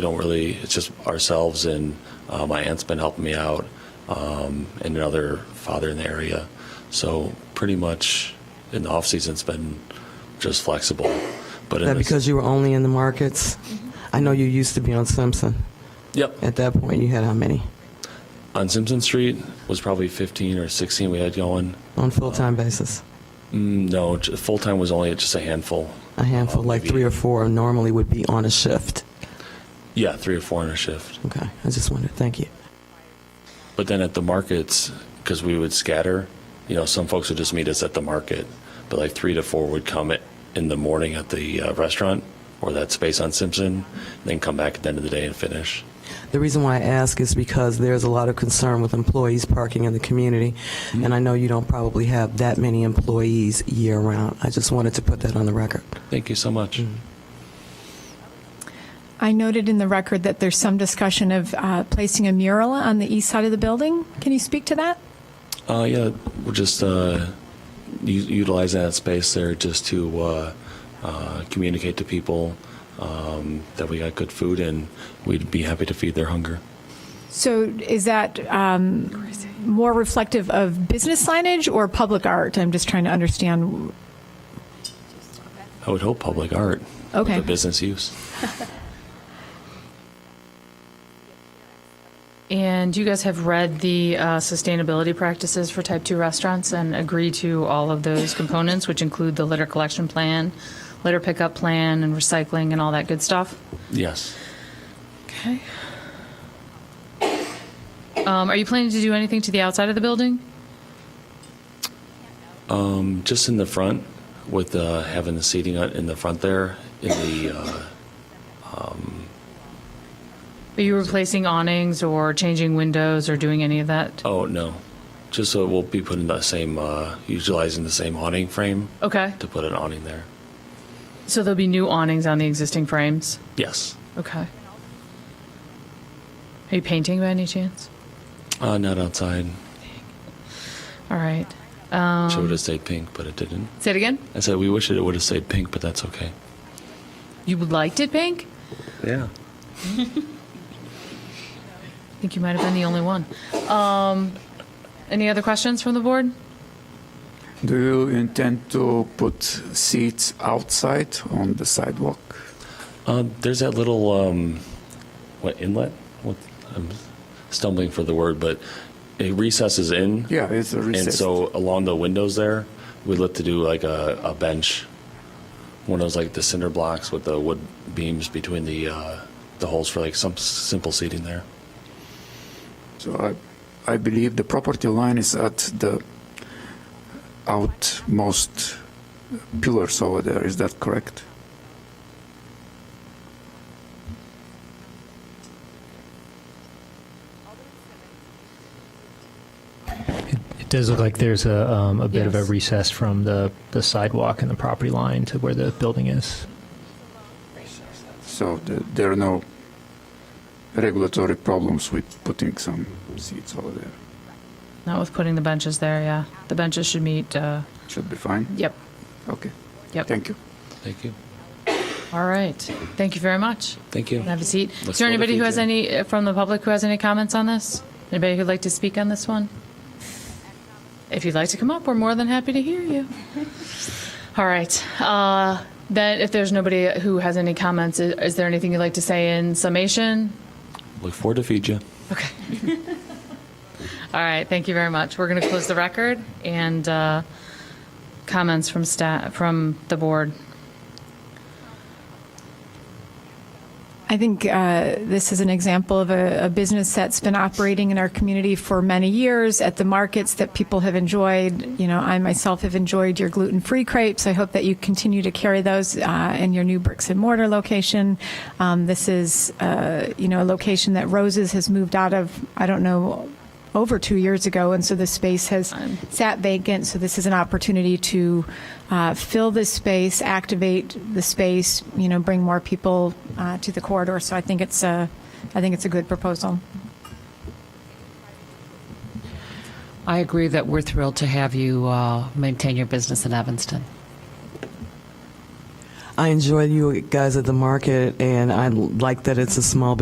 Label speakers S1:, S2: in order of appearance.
S1: We don't really, it's just ourselves and uh, my aunt's been helping me out um, and another father in the area. So pretty much in the off season, it's been just flexible. But in
S2: That
S1: this-
S2: because you were only in the markets? I know you used to be on Simpson.
S1: yep,
S2: At that point, you had how many
S1: on Simpson Street was probably 15 or 16 we had going.
S2: on full-time basis?
S1: No, full time was only just a handful.
S2: A handful,
S1: Uh,
S2: like
S1: maybe-
S2: three or four normally would be on a shift.
S1: Yeah, three or four in a shift.
S2: Okay, I just wondered, thank you.
S1: But then at the markets, because we would scatter, you know, some folks would just meet us at the market, but like three to four would come at, in the morning at the uh, restaurant or that space on Simpson, then come back at the end of the day and finish.
S2: The reason why I ask is because there's a lot of concern with employees parking in the community, and I know you don't probably have that many employees year-round. I just wanted to put that on the record.
S1: Thank you so much.
S3: I noted in the record that there's some discussion of uh, placing a mural on the east side of the building. Can you speak to that?
S1: Uh, yeah, we're just uh, u- utilizing that space there just to uh, uh, communicate to people um, that we got good food and we'd be happy to feed their hunger.
S3: So is that um, more reflective of business signage or public art? I'm just trying to understand.
S1: I would hope public art.
S3: Okay.
S1: The business use.
S4: And you guys have read the uh, sustainability practices for type 2 restaurants and agree to all of those components, which include the litter collection plan, litter pickup plan, and recycling and all that good stuff?
S1: Yes.
S4: Okay. Um, are you planning to do anything to the outside of the building?
S1: Just in the front, with uh, having the seating on- in the front there, in the, uh,
S4: Are you replacing awnings or changing windows or doing any of that?
S1: oh, no. Just so we'll be putting the same, uh, utilizing the same awning frame
S4: Okay.
S1: to put an awning there.
S4: So there'll be new awnings on the existing frames?
S1: Yes.
S4: Okay. Are you painting by any chance?
S1: Uh, Not outside.
S4: All right.
S1: Should have stayed pink, but it didn't.
S4: Say it again.
S1: I said we wish it would have stayed pink, but that's okay.
S4: You liked it pink?
S1: Yeah.
S4: I think you might have been the only one. Um, any other questions from the board?
S5: Do you intend to put seats outside on the sidewalk?
S1: Uh, there's that little um, what inlet? What I'm stumbling for the word, but it recesses in.
S5: Yeah, it's a
S1: And
S5: recess.
S1: so along the windows there, we look to do like a, a bench, one of those like the cinder blocks with the wood beams between the uh, the holes for like some s- simple seating there.
S5: So I, I believe the property line is at the outmost pillars over there. Is that correct?
S6: It does look like there's a, um, a bit of a
S4: Yes.
S6: recess from the, the sidewalk and the property line to where the building is.
S5: So the, there are no regulatory problems with putting some seats over there.
S4: Not with putting the benches there, yeah. The benches should meet, uh,
S5: Should be fine.
S4: yep,
S5: Okay.
S4: yep.
S5: Thank you.
S1: Thank you.
S4: All right. Thank you very much.
S1: Thank you.
S4: Have a seat.
S1: Let's
S4: Is there
S1: go to
S4: anybody who has
S1: feature.
S4: any, uh, from the public who has any comments on this? Anybody who'd like to speak on this one? If you'd like to come up, we're more than happy to hear you. All right. Uh, Then, if there's nobody who has any comments, i- is there anything you'd like to say in summation?
S1: Look forward to feed you.
S4: All right, thank you very much. We're going to close the record and uh, comments from staff, from the board.
S3: I think uh, this is an example of a, a business that's been operating in our community for many years at the markets that people have enjoyed. You know, I myself have enjoyed your gluten free crepes. I hope that you continue to carry those uh, in your new bricks and mortar location. Um, this is, uh, you know, a location that Roses has moved out of, I don't know, over two years ago, and so the space has sat vacant. So this is an opportunity to uh, fill this space, activate the space, you know, bring more people uh, to the corridor. So I think it's a, I think it's a good proposal.
S7: I agree that we're thrilled to have you uh, maintain your business in Evanston.
S2: I enjoy you guys at the market, and I like that it's a small